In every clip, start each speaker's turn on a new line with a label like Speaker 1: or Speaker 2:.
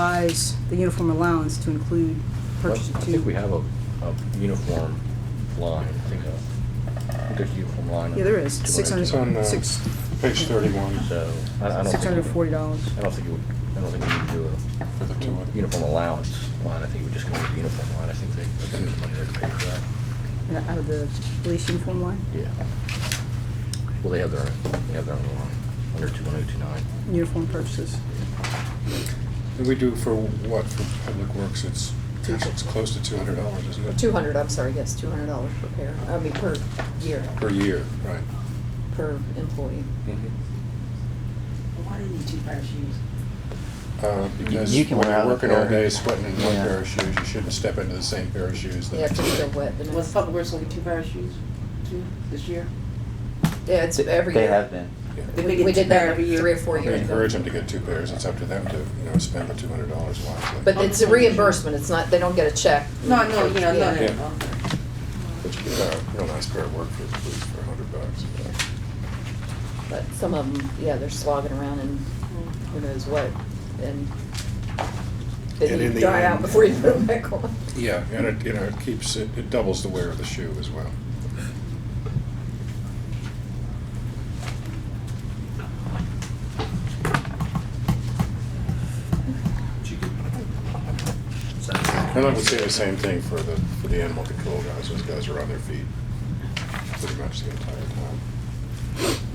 Speaker 1: revise the uniform allowance to include
Speaker 2: Well, I
Speaker 1: purchase of two.
Speaker 2: think we have a, a uniform line, I think, uh, I think there's a uniform line.
Speaker 1: Yeah, there is, six hundred,
Speaker 3: It's on, uh,
Speaker 1: six,
Speaker 3: Page thirty-one
Speaker 2: So, I, I don't think.
Speaker 1: six hundred forty dollars.
Speaker 2: I don't think you would, I don't think we need to do
Speaker 3: for the two
Speaker 2: a
Speaker 3: of them.
Speaker 2: uniform allowance line, I think we're just gonna do the uniform line, I think they, I think there's money there to pay for that.
Speaker 1: uh, Out of the police uniform line,
Speaker 2: Yeah. Well, they have their, own- they have their own line, under two one oh two nine.
Speaker 1: uniform purchases.
Speaker 3: And we do for what, for Public Works, it's, gosh, it's close to two hundred dollars, isn't it?
Speaker 4: Two hundred, I'm sorry, yes, two hundred dollars per pair, I mean, per year,
Speaker 3: Per year, right.
Speaker 4: per employee.
Speaker 5: Why do you need two pair of shoes?
Speaker 3: Uh, Because
Speaker 6: you can
Speaker 3: when
Speaker 6: wear
Speaker 3: you're
Speaker 6: out a
Speaker 3: working all
Speaker 6: pair.
Speaker 3: day sweating in one
Speaker 6: Yeah.
Speaker 3: pair of shoes, you shouldn't step into the same pair of shoes the
Speaker 4: They have
Speaker 3: next
Speaker 4: to feel
Speaker 3: day.
Speaker 4: wet the
Speaker 5: Was
Speaker 4: next.
Speaker 5: Public Works gonna be two pair of shoes, two, this year?
Speaker 4: Yeah, it's every year.
Speaker 6: They have been.
Speaker 3: Yeah.
Speaker 5: They
Speaker 4: We
Speaker 5: get
Speaker 4: we
Speaker 5: two
Speaker 4: did
Speaker 5: pair
Speaker 4: that
Speaker 5: every year.
Speaker 4: three or four
Speaker 3: We
Speaker 4: years ago.
Speaker 3: encourage them to get two pairs, it's up to them to, you know, spend the two hundred dollars wisely.
Speaker 4: But it's a reimbursement, it's not, they don't get a check.
Speaker 5: No, I know, yeah, no, no,
Speaker 3: Yeah.
Speaker 5: no.
Speaker 3: But you get a real nice pair of work for, for a hundred bucks.
Speaker 4: But some of them, yeah, they're slogging around and who knows what,
Speaker 3: And
Speaker 4: and they
Speaker 3: in
Speaker 4: need to
Speaker 3: the
Speaker 4: dry out
Speaker 3: end-
Speaker 4: before you put them back on.
Speaker 3: Yeah, and it, you know, it keeps, it it doubles the wear of the shoe as well. And I would say the same thing for the, for the animal control guys, those guys are on their feet pretty much the entire time.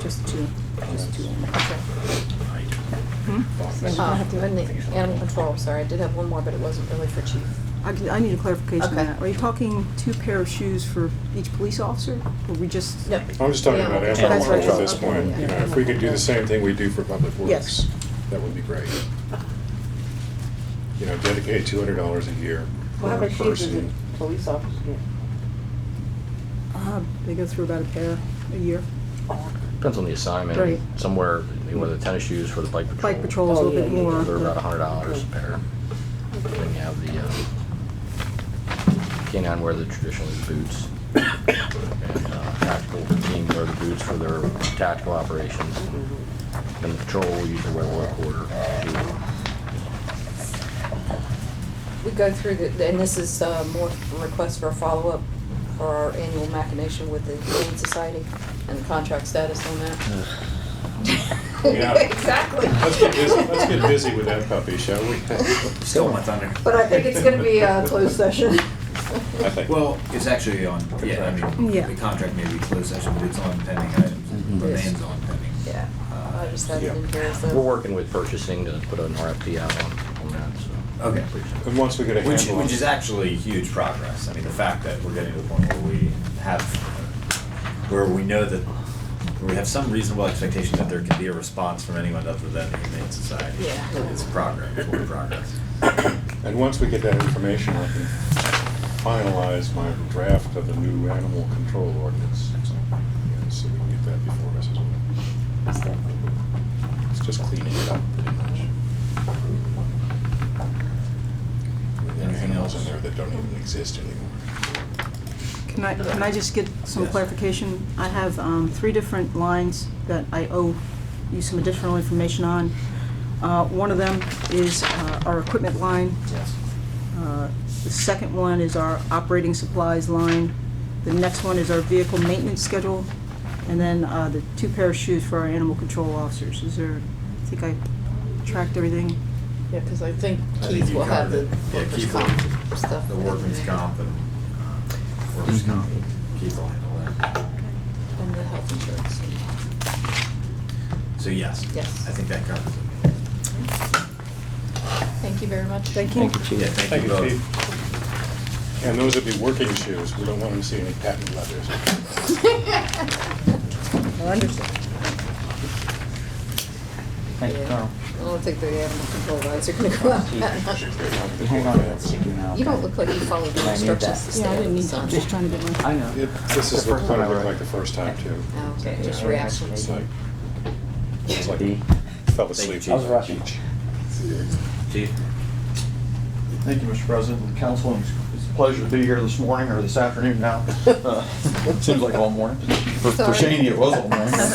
Speaker 1: Just two, just two.
Speaker 4: Uh, and the Animal control, sorry, I did have one more, but it wasn't really for chief.
Speaker 1: I, can- I need a clarification on
Speaker 4: Okay.
Speaker 1: that. Are you talking two pair of shoes for each police officer? Or we just?
Speaker 4: No,
Speaker 3: I'm just talking
Speaker 4: Yeah,
Speaker 3: about
Speaker 4: that's
Speaker 3: animal
Speaker 1: right.
Speaker 3: control at this
Speaker 1: Okay,
Speaker 3: point,
Speaker 1: yeah.
Speaker 3: you know, if we could do the same thing we do for public
Speaker 1: Yes.
Speaker 3: works, that would be great. You know, dedicate two hundred dollars a year per
Speaker 5: Well, how many shoes does a
Speaker 3: person.
Speaker 5: police officer get?
Speaker 1: Uh, They go through about a pair a year.
Speaker 2: Depends on the assignment.
Speaker 1: Right.
Speaker 2: Somewhere, you know, the tennis shoes for the bike patrol.
Speaker 1: Bike patrol is a
Speaker 4: Oh,
Speaker 1: little
Speaker 4: yeah,
Speaker 1: bit
Speaker 4: yeah,
Speaker 1: more.
Speaker 2: They're about
Speaker 1: but-
Speaker 2: a hundred dollars a pair. Then you have the, uh, canine wear the traditional boots. And, uh, tactical team wear the boots for their tactical operations.
Speaker 1: Mm-hmm.
Speaker 2: And the patrol will usually wear one quarter.
Speaker 4: We go through the, and this is uh, more request for a follow-up for our annual machination with the Humane Society and the contract status on that.
Speaker 3: Yeah.
Speaker 4: Exactly.
Speaker 3: Let's get busy, let's get busy with that puppy, shall we?
Speaker 6: Still my thunder.
Speaker 4: But I think it's gonna be a closed session.
Speaker 3: I think.
Speaker 7: Well, it's actually on, yeah, I mean,
Speaker 1: Yeah.
Speaker 7: the contract may be closed session, but it's on pending items,
Speaker 6: Mhm.
Speaker 7: It remains on pending.
Speaker 4: Mm-hmm.
Speaker 7: Uh,
Speaker 4: Yeah, I just had it in here,
Speaker 2: We're
Speaker 4: so.
Speaker 2: working with purchasing to put an RFP out on, on that, so.
Speaker 7: Okay.
Speaker 3: And once we get a
Speaker 7: Which,
Speaker 3: handle on
Speaker 7: which is actually huge progress. I mean, the fact that we're getting to the point where we have, where we know that, where we have some reasonable expectation that there can be a response from anyone other than the Humane Society.
Speaker 4: Yeah.
Speaker 7: It's progress, it's progress.
Speaker 3: And once we get that information, I can finalize my draft of the new animal control ordinance. So, yeah, So we can get that before us as well. It's just cleaning it up pretty much. There are
Speaker 7: Anything
Speaker 3: animals in
Speaker 7: else?
Speaker 3: there that don't even exist anymore.
Speaker 1: Can I, can I just get some
Speaker 7: Yes.
Speaker 1: clarification? I have um, three different lines that I owe you some additional information on. Uh, One of them is uh, our equipment line.
Speaker 7: Yes.
Speaker 1: Uh, The second one is our operating supplies line. The next one is our vehicle maintenance schedule. And then uh, the two pair of shoes for our animal control officers. Is there, I think I tracked everything.
Speaker 4: Yeah, because I think
Speaker 7: I think
Speaker 4: Keith
Speaker 7: you
Speaker 4: will have the
Speaker 7: covered it. Yeah,
Speaker 4: workers'
Speaker 7: Keith
Speaker 4: comp
Speaker 7: will-
Speaker 4: stuff.
Speaker 7: The workman's comp and, uh, workers'
Speaker 6: Mhm.
Speaker 7: comp, Keith will handle that.
Speaker 4: And the health insurance.
Speaker 7: So yes.
Speaker 4: Yes.
Speaker 7: I think that covers it.
Speaker 4: Thank you very much.
Speaker 1: Thank you.
Speaker 7: Yeah, thank you both.
Speaker 3: Chief. And those would be working shoes. We don't want them to see any patent leathers.
Speaker 1: I understand.
Speaker 6: Thank you, Carl.
Speaker 4: I don't think the animal control guys are gonna go out.
Speaker 6: Hang on, I'll stick you now.
Speaker 4: You don't look like you followed
Speaker 6: I
Speaker 4: the
Speaker 6: need that.
Speaker 4: instructions Oh, to
Speaker 1: Yeah, I
Speaker 4: stand
Speaker 1: didn't
Speaker 4: in the
Speaker 1: need to, I'm
Speaker 4: sun.
Speaker 1: just trying to get my.
Speaker 6: I know.
Speaker 3: It- This is
Speaker 6: The
Speaker 3: what
Speaker 6: first
Speaker 3: what
Speaker 6: one
Speaker 3: it
Speaker 6: I wrote.
Speaker 3: looked like the first time too.
Speaker 4: Oh, okay,
Speaker 3: Yeah.
Speaker 4: just reactions.
Speaker 3: It's like, it's like
Speaker 6: B.
Speaker 3: fell
Speaker 7: Thank you,
Speaker 3: asleep.
Speaker 7: Chief. I was
Speaker 6: rushing.
Speaker 7: Chief?
Speaker 8: Thank you, Mr. President and Council. It's it's a pleasure to be here this morning or this afternoon now. Uh, Seems like all morning. For for
Speaker 4: Sorry.
Speaker 8: Shady, it was all morning.